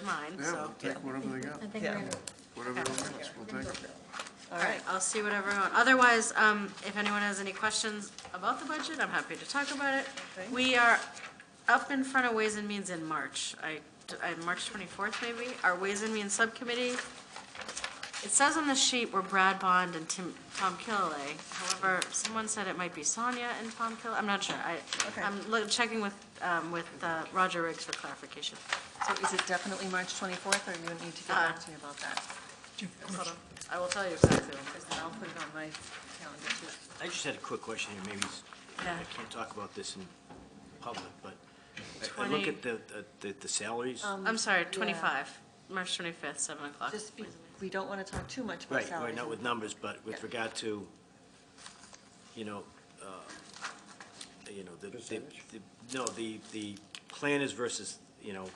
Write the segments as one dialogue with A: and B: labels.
A: There's mine,
B: Yeah,
A: so.
B: we'll take whatever they got,
C: I think
A: Yeah.
C: we're in.
B: whatever it is, we'll take it.
A: All right, I'll see what everyone, otherwise, um, if anyone has any questions about the budget, I'm happy to talk about it. We are up in front of Ways and Means in March, I, I- March twenty-fourth maybe, our Ways and Means Subcommittee. It says on the sheet we're Brad Bond and Tim, Tom Killalay, however, someone said it might be Sonia and Tom Kill, I'm not sure, I, I'm lo- checking with, um, with uh, Roger Riggs for clarification.
D: So is it definitely March 24th, or you need to get back to me about that?
A: Hold on, I will tell you exactly. when it is.
D: Because then I'll put it on my calendar too.
E: I just had a quick question here, maybe, it's-
A: Yeah.
E: I can't talk about this in public, but I- I look
A: 20.
E: at the, the- the salaries.
D: Um,
A: I'm sorry,
D: Yeah.
A: 25, March 25th, 7 o'clock.
D: Just, be- we don't want to talk too much about
E: Right,
D: salaries.
E: right, not with numbers, but with
D: Yeah.
E: regard to, you know, uh, you know, the, the, the- no, the, the planners versus, you know,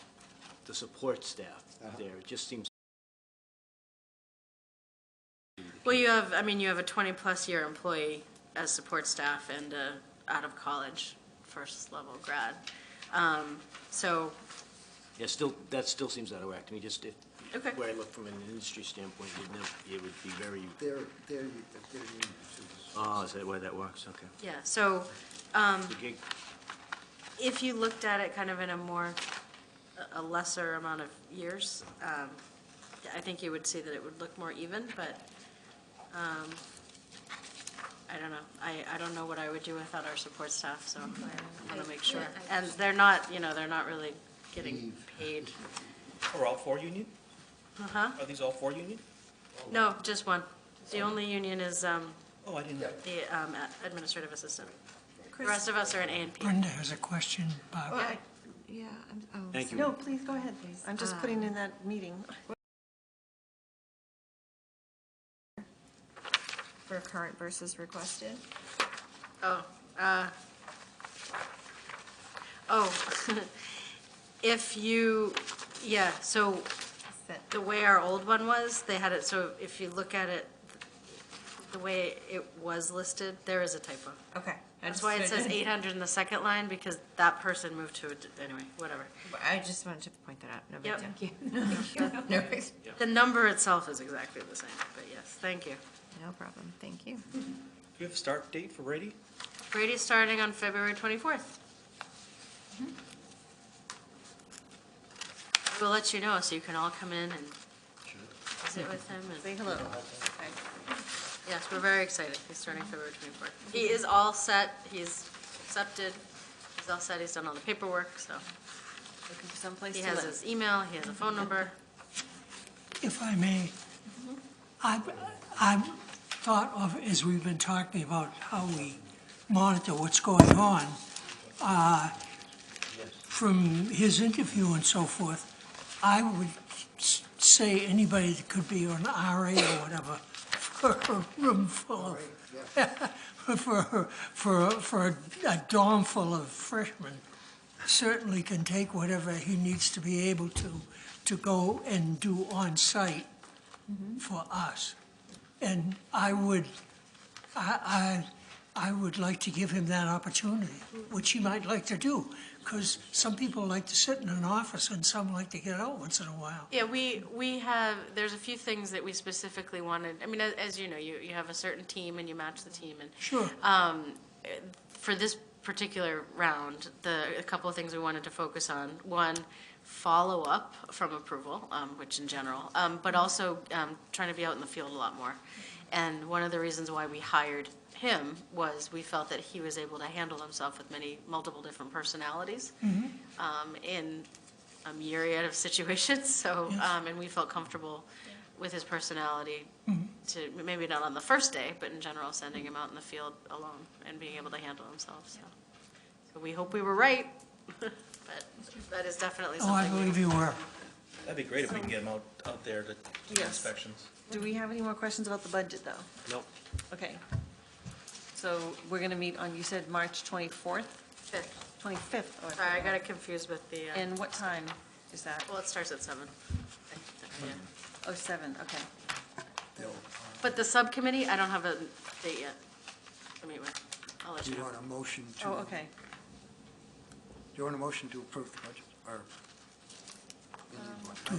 E: the support staff there, it just seems,
A: Well, you have, I mean, you have a 20-plus year employee as support staff and a out-of-college first-level grad. Um, So,
E: yeah, still, that still seems out of whack to me, just if,
A: Okay.
E: where I look from an industry standpoint, it would, it would be very,
F: They're, they're, they're unions.
E: oh, is that why that works, okay.
A: yeah, so
D: Mm.
E: The gig,
A: if you looked at it kind of in a more, a- a lesser amount of years, um, I think you would see that it would look more even, but um, I don't know. I, I don't know what I would do without our support staff, so I want to make sure. And they're not, you know, they're not really getting paid.
G: Are all four union?
A: Uh-huh.
G: Are these all four union?
A: No, just one. The only union is um,
G: Oh, I didn't know.
A: the um, a- administrative assistant. The rest of us are in A and P.
H: Brenda has a question, Bob.
D: Yeah.
C: Yeah, I'm, oh.
E: Thank you.
D: No, please, go ahead. I'm just
C: Uh,
D: putting in that meeting.
C: For current versus requested.
A: Oh, uh, oh, if you, yeah, so
C: That-
A: the way our old one was, they had it, so if you look at it, the way it was listed, there is a typo.
C: Okay. I
A: That's
C: just
A: why it
C: wanted-
A: says eight hundred in the second line, because that person moved to, a d- anyway, whatever.
C: I just wanted to point that out. No big
A: Yep.
C: deal. Thank you. No, worries.
A: The number itself is exactly the same, but yes, thank you.
C: no problem. Thank you.
G: Do you have a start date for Brady?
A: Brady's starting on February 24th. We'll let you know, so you can all come in and sit with him and. Say hello. Yes, we're very excited, he's starting February 24th. He is all set, he's accepted, he's all set, he's done all the paperwork, so
D: Looking for someplace
A: he
D: to
A: has
D: live.
A: his email, he has a phone number.
H: If I may, I've, I've thought of, as we've been talking about how we monitor what's going on, uh, from his interview and so forth, I would s- say anybody that could be an RA or whatever for a room full of, for, for, for a dorm full of freshmen certainly can take whatever he needs to be able to, to go and do on-site for us. And I would, I, I, I would like to give him that opportunity, which he might like to do, because some people like to sit in an office and some like to get out once in a while.
A: Yeah, we, we have, there's a few things that we specifically wanted, I mean, a- as you know, you, you have a certain team and you match the team and. um,
H: Sure.
A: for this particular round, the, a couple of things we wanted to focus on. One, follow-up from approval, um, which in general, um, but also, um, trying to be out in the field a lot more. And one of the reasons why we hired him was we felt that he was able to handle himself with many, multiple different personalities, um, in a myriad of situations, so, um, and we felt comfortable with his personality
H: Mm-hmm.
A: to, maybe not on the first day, but in general, sending him out in the field alone and being able to handle himself, so. So we hope we were right, but that is definitely
H: Oh, I
A: something.
H: believe you were.
G: That'd be great if we can get them out, out there to do
D: Yes.
G: inspections.
D: Do we have any more questions about the budget, though?
E: nope.
D: Okay. So we're going to meet on, you said March 24th,
A: Fifth.
D: 25th? oh,
A: Sorry, I got
D: forgot.
A: it confused with the, uh,
D: And what time is that?
A: well, it starts at seven. Yeah.
D: Oh, seven, okay.
A: But the subcommittee, I don't have a date yet. I mean, I'll let
F: Do
A: you
F: you
A: know.
F: want a motion to?
D: Oh, okay.
F: Do you want a motion to approve the budget, or They need one.